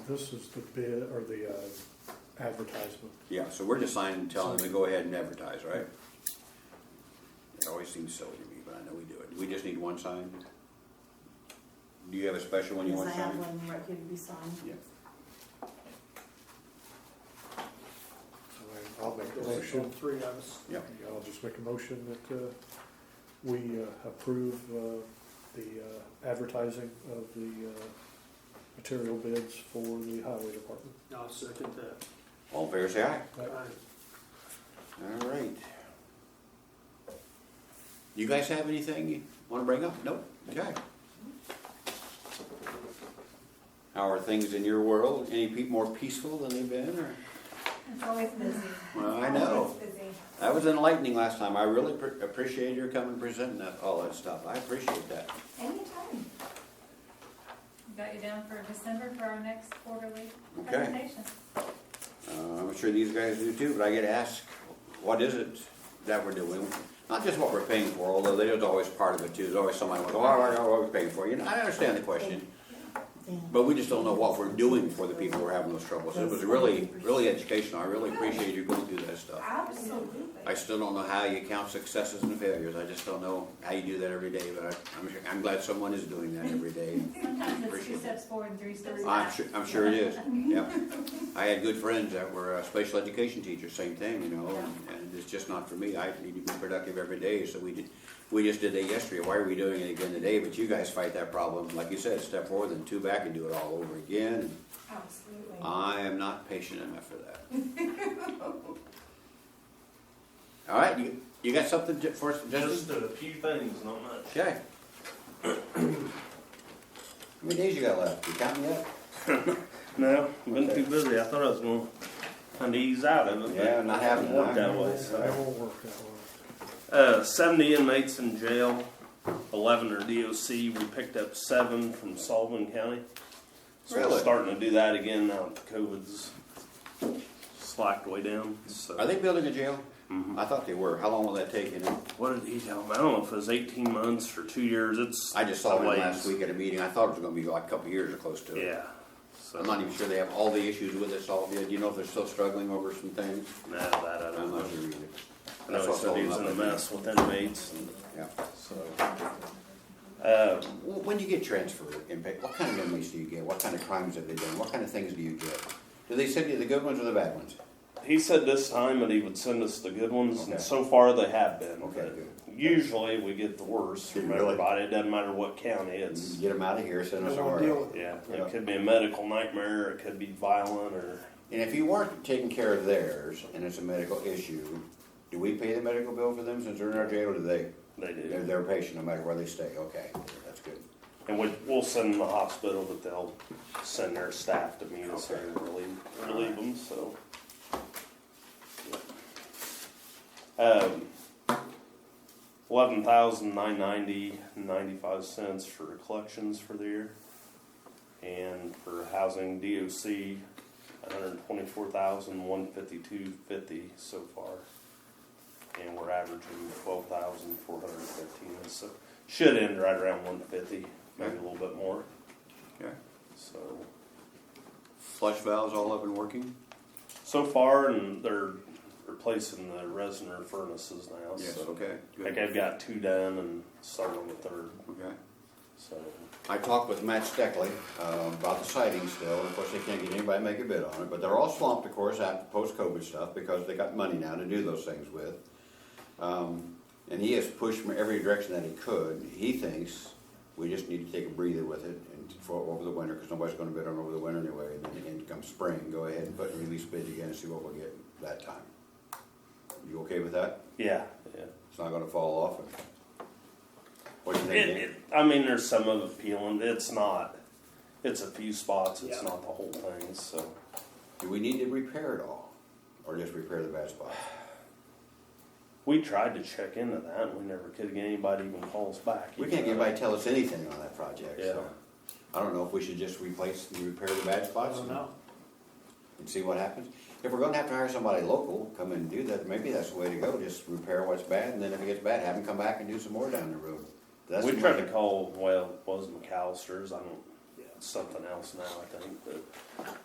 This is the bid, or the uh, advertisement. Yeah, so we're just signing, telling them to go ahead and advertise, right? It always seems silly to me, but I know we do it. Do we just need one signed? Do you have a special one you Yes, want I have signed? one right here to be signed. Yeah. So I- I'll make a There's all motion, three of us. Yeah, I'll just make a motion that uh, we uh, approve uh, the uh, advertising of the uh, material bids for the highway department. I'll second that. all in favor, say aye. Aye. All right. You guys have anything you wanna bring up? Nope, okay. How are things in your world? Any pe- more peaceful than they've been, or? It's always busy. Well, I It's know. Always busy. That was enlightening last time. I really pre- appreciate your coming and presenting that, all that stuff. I appreciate that. Anytime. Got you down for December for our next quarterly Okay. presentation. Uh, I'm sure these guys do too, but I get asked, what is it that we're doing? Not just what we're paying for, although that is always part of it too. There's always somebody like, oh, I know what we're paying for. You know, I understand the question, but we just don't know what we're doing for the people who are having those troubles. It was really, really educational. I really appreciate you going through that stuff. Absolutely. I still don't know how you count successes and failures. I just don't know how you do that every day, but I- I'm, sure- I'm glad someone is doing that every day. Sometimes it's Appreciate two it. steps forward and three steps I'm back. sure, I'm sure it is, yeah. I had good friends that were uh, special education teachers, same thing, you know, and- and it's just not for me. I need to be productive every day, so we did, we just did that yesterday. Why are we doing it again today? But you guys fight that problem, like you said, step forward and two back and do it all over again. Absolutely. I am not patient enough for that. All right, you, you got something to- for us, Justin? Just a few things, not much. Okay. How many days you got left? You counting yet? No, I've been Okay. too busy. I thought I was going to kind of ease out of it. but Yeah, not having it time. worked that way. That So. won't work that well. Uh, 70 inmates in jail, 11 are DOC. We picked up seven from Sullivan County. So Really? we're starting to do that again now. that COVID's slacked way down. So. Are they building a jail? Mhm. I thought they were. How long will that take, you know? What did he tell me? I don't know if it was 18 months or two years. It's I just saw a one ways. last week at a meeting. I thought it was gonna be like a couple of years or close to it. Yeah. So I'm not even sure they have all the issues with it solved yet. Do you know if they're still struggling over some things? Nah, that I don't I'm know. not sure either. I know That's he what's said he holding was in up a the- mess with inmates. And, Yeah. so, uh, Wh- When you get transferred, in pa- what kind of inmates do you get? What kind of crimes have they done? What kind of things do you get? Do they send you the good ones or the bad ones? he said this time that he would send us the good ones, Okay. and so far they have been. Okay, but good. Usually we get the worst from Really? everybody. It doesn't matter what county it's. Get them out of here, send No them one somewhere deal else. with it. Yeah, Mm-hmm. Yeah. it could be a medical nightmare. It could be violent, or And if you weren't taking care of theirs and it's a medical issue, do we pay the medical bill for them since they're in our jail or do they? they do. They're, they're a patient no matter where they stay. Okay, that's good. And we, we'll send them to the hospital, but they'll send their staff to meet us Okay. and relieve, relieve them, so. Um, eleven thousand nine ninety, ninety-five cents for collections for the year. And for housing DOC, a hundred twenty-four thousand, one fifty-two fifty so far. And we're averaging twelve thousand, four hundred fifteen, so should end right around one fifty, maybe a little bit more, Okay. so. Flush valves all up and working? So far, and they're replacing the resonator furnaces now, so. Okay. I good. think I've got two done and starting on the third, Okay. so. I talked with Matt Steckley uh, about the siding still, and of course they can't get anybody to make a bid on it, but they're all swamped, of course, after post-COVID stuff, because they got money now to do those things with. Um, And he has pushed from every direction that he could. He thinks we just need to take a breather with it and for over the winter, because nobody's gonna bid on it over the winter anyway, and then again, come spring, go ahead and put a release bid again and see what we'll get that time. You okay with that? Yeah, yeah. It's not gonna fall off? What do you think? It, Dan? it, I mean, there's some of it peeling, it's not, it's a few spots, it's Yeah. not the whole thing, so. Do we need to repair it all, or just repair the bad spots? We tried to check into that, and we never could get anybody even calls back. We can't get you know. anybody to tell us anything on that project, so. Yeah. I don't know if we should just replace and repair the bad I spots don't and know. and see what happens. If we're gonna have to hire somebody local, come and do that, maybe that's the way to go, just repair what's bad, and then if it gets bad, have them come back and do some more down the road. That's We the tried way- to call, well, it was McAllister's, I don't, Yeah. something else now, I think, but